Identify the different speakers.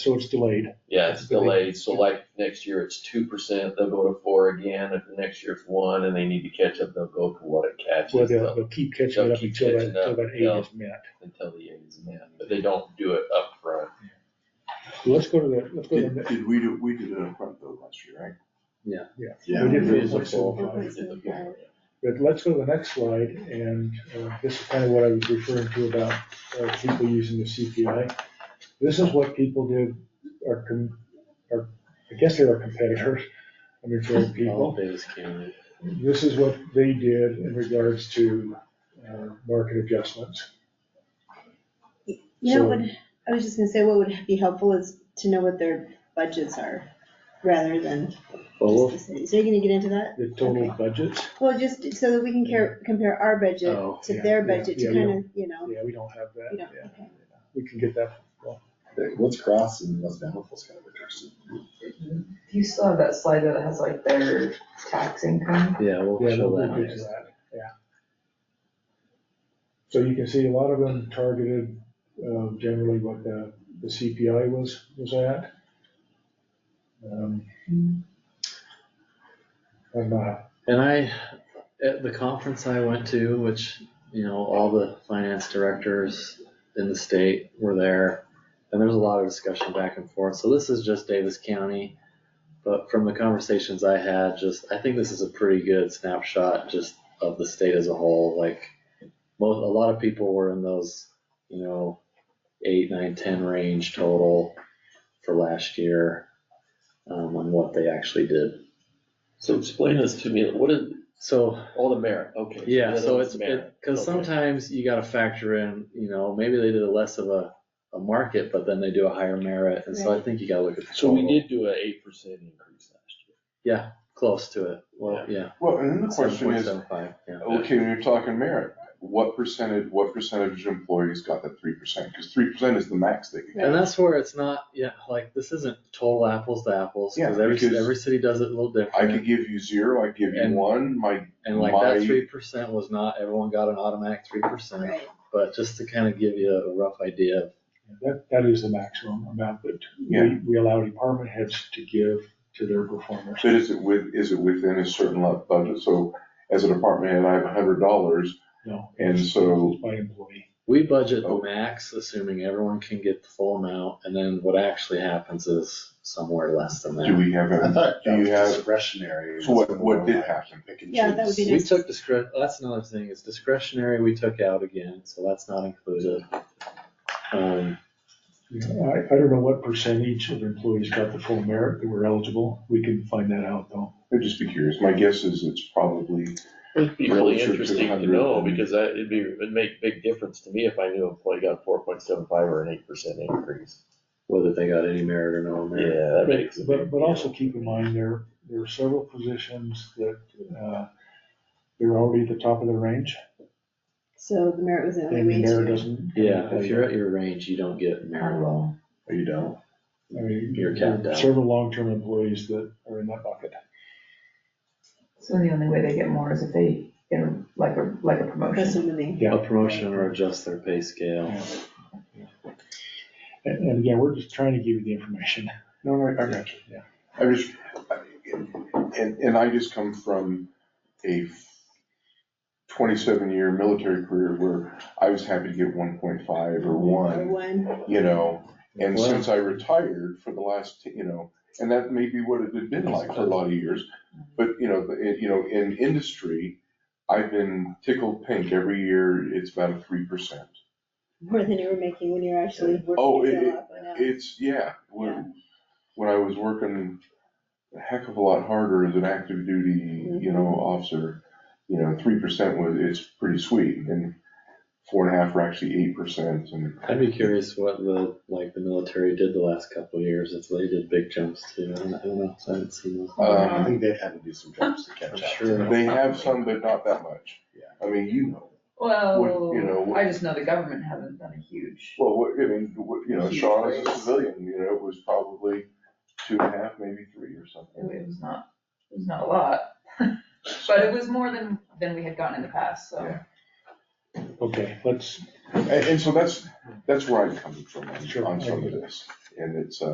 Speaker 1: So it's delayed.
Speaker 2: Yeah, it's
Speaker 1: That's really-
Speaker 2: delayed, so like next year it's two percent, they'll go to four again, if the next year it's one and they need to catch up, they'll go to what it
Speaker 1: Well, they'll,
Speaker 2: catches. they'll-
Speaker 1: they'll keep catching it
Speaker 2: They'll
Speaker 1: up
Speaker 2: keep
Speaker 1: until that,
Speaker 2: catching up,
Speaker 1: until that
Speaker 2: yeah.
Speaker 1: aid is met.
Speaker 2: Until the end is met, but they don't do it upfront.
Speaker 1: Well, Let's go to the, let's go to
Speaker 3: Did,
Speaker 1: the.
Speaker 3: did we do, we did it in front though last year, right?
Speaker 4: Yeah.
Speaker 1: Yeah.
Speaker 3: Yeah.
Speaker 1: We did
Speaker 3: Yeah.
Speaker 1: the whistle
Speaker 2: They
Speaker 1: slide.
Speaker 2: did the full-
Speaker 1: But let's go to the next slide, and uh, this is kind of what I was referring to about uh, people using the CPI. This is what people did, our, com- our, I guess they're our competitors, I mean, for other people. This is what they did in regards to uh, market adjustments.
Speaker 5: You know,
Speaker 1: So-
Speaker 5: what, I was just gonna say, what would be helpful is to know what their budgets are, rather than just the cities. Are you gonna get into that?
Speaker 1: The total
Speaker 5: Okay.
Speaker 1: budgets,
Speaker 5: Well, just so that we can care, compare our budget
Speaker 4: Oh,
Speaker 5: to
Speaker 1: yeah,
Speaker 5: their
Speaker 1: yeah,
Speaker 5: budget,
Speaker 1: yeah,
Speaker 5: to
Speaker 1: we
Speaker 5: kind of, you know,
Speaker 1: yeah, we don't have that.
Speaker 5: you know,
Speaker 1: Yeah.
Speaker 5: okay.
Speaker 1: We can get that.
Speaker 3: What's cross and what's bountiful's kind of interesting.
Speaker 6: You still have that slide that has like their tax income.
Speaker 4: Yeah, we'll
Speaker 1: Yeah,
Speaker 4: show
Speaker 1: we'll
Speaker 4: that.
Speaker 1: get to that, yeah. So you can see a lot of them targeted, uh, generally what the, the CPI was, was at. Um, I'm, uh,
Speaker 4: And I, at the conference I went to, which, you know, all the finance directors in the state were there. And there was a lot of discussion back and forth. So this is just Davis County. But from the conversations I had, just, I think this is a pretty good snapshot just of the state as a whole. Like, most, a lot of people were in those, you know, eight, nine, ten range total for last year, um, on what they actually did.
Speaker 2: So explain this to me, what is,
Speaker 4: So
Speaker 2: all the merit, okay.
Speaker 4: yeah,
Speaker 2: that's
Speaker 4: so
Speaker 2: all
Speaker 4: it's,
Speaker 2: merit,
Speaker 4: because
Speaker 2: okay.
Speaker 4: sometimes you gotta factor in, you know, maybe they did a less of a, a market, but then they do a higher merit, and so I think you gotta look at. the
Speaker 2: So we
Speaker 4: total.
Speaker 2: did do an eight percent increase last year.
Speaker 4: Close to it, well, yeah.
Speaker 3: Well, and then the question is, Oh,
Speaker 4: 7.75, yeah.
Speaker 3: okay, when you're talking merit, what percentage, what percentage of employees got that three percent? Cause three percent is the max they can get.
Speaker 4: And that's where it's not, yeah, like, this isn't total apples to apples,
Speaker 3: Yeah,
Speaker 4: cause every,
Speaker 3: because
Speaker 4: every city does it a little
Speaker 3: I could
Speaker 4: different,
Speaker 3: give you zero, I could give you
Speaker 4: And-
Speaker 3: one, my,
Speaker 4: and like
Speaker 3: my-
Speaker 4: that three percent was not, everyone got an automatic three percent,
Speaker 5: Right,
Speaker 4: but just to kind of give you a rough idea of
Speaker 1: that, that is the maximum amount that we,
Speaker 3: Yeah.
Speaker 1: we allow department heads to give to their performers.
Speaker 3: but is it with, is it within a certain lot budget? So as a department head, I have a hundred dollars.
Speaker 1: No.
Speaker 3: And so-
Speaker 1: By employee.
Speaker 4: We budget
Speaker 3: Oh.
Speaker 4: the max, assuming everyone can get the full amount, and then what actually happens is somewhere less than
Speaker 3: Do
Speaker 4: that.
Speaker 3: we have,
Speaker 7: I
Speaker 3: a-
Speaker 7: thought
Speaker 3: do
Speaker 7: that
Speaker 3: you
Speaker 7: was
Speaker 3: have,
Speaker 7: discretionary.
Speaker 3: so what, what did happen?
Speaker 7: Pick and
Speaker 5: Yeah, that would be
Speaker 7: choose.
Speaker 4: We took discre, that's another thing, is discretionary we took out again, so that's not included. Um,
Speaker 1: You know, I, I don't know what percentage of employees got the full merit that were eligible. We can find that out though.
Speaker 3: I'd just be curious. My guess is it's probably
Speaker 2: It'd be
Speaker 3: Well,
Speaker 2: really
Speaker 3: it's your
Speaker 2: interesting to
Speaker 3: 200
Speaker 2: know,
Speaker 3: and-
Speaker 2: because I, it'd be, it'd make big difference to me if I knew an employee got four point seven five or an eight percent increase.
Speaker 4: whether they got any merit or no merit.
Speaker 2: Yeah, that makes. a
Speaker 1: But,
Speaker 2: big
Speaker 1: but
Speaker 2: deal.
Speaker 1: also keep in mind, there, there are several positions that, uh, they're already at the top of the range,
Speaker 5: so the merit was the only
Speaker 1: and the
Speaker 5: way
Speaker 1: mayor
Speaker 5: to.
Speaker 1: doesn't.
Speaker 4: Yeah, if you're at your range, you don't get merit at all.
Speaker 7: Or Oh, you don't.
Speaker 1: I mean,
Speaker 4: you're capped
Speaker 1: there are
Speaker 4: out.
Speaker 1: several long-term employees that are in that bucket.
Speaker 6: So the only way they get more is if they get a- like a, like a
Speaker 5: That's
Speaker 6: promotion.
Speaker 5: what I mean.
Speaker 4: A
Speaker 1: Yeah,
Speaker 4: promotion or adjust their pay scale.
Speaker 1: and, and again, we're just trying to give you the information.
Speaker 3: No, no, I got you.
Speaker 1: Yeah.
Speaker 3: I just, and, and I just come from a twenty-seven year military career where I was happy to get one point five or
Speaker 5: Or
Speaker 3: one,
Speaker 5: one,
Speaker 3: you know? And
Speaker 4: Well-
Speaker 3: since I retired for the last, you know, and that may be what it had been like for a lot of years. But, you know, the- it, you know, in industry, I've been tickled pink every year. It's about a three percent.
Speaker 5: more than you were making when you're actually
Speaker 3: Oh,
Speaker 5: working
Speaker 3: it-
Speaker 5: yourself up. I know.
Speaker 3: It's, yeah, when, when I was working a heck of a lot harder as an active duty, you know, officer, you know, three percent was, it's pretty sweet, and four and a half were actually eight percent, and
Speaker 4: I'd be curious what the, like, the military did the last couple of years, if they did big jumps too, I don't I don't know, I haven't seen those.
Speaker 7: I
Speaker 3: um,
Speaker 7: think they've had to do some jobs to catch
Speaker 4: I'm
Speaker 7: up.
Speaker 4: sure.
Speaker 3: they have some, but not that much.
Speaker 7: Yeah.
Speaker 3: I mean, you, What- you know,
Speaker 6: Well,
Speaker 3: what-
Speaker 6: I just know the government hasn't done a huge.
Speaker 3: well, what- I mean, what- you know, Sean as a civilian, you know, was probably two and a half, maybe three or something.
Speaker 6: It was not, it was not a lot, but it was more than, than we had gotten in the past, so.
Speaker 3: Yeah.
Speaker 1: Okay, let's,
Speaker 3: And, and so that's, that's where I'm coming from on,
Speaker 1: Sure.
Speaker 3: on some of this, and it's, uh,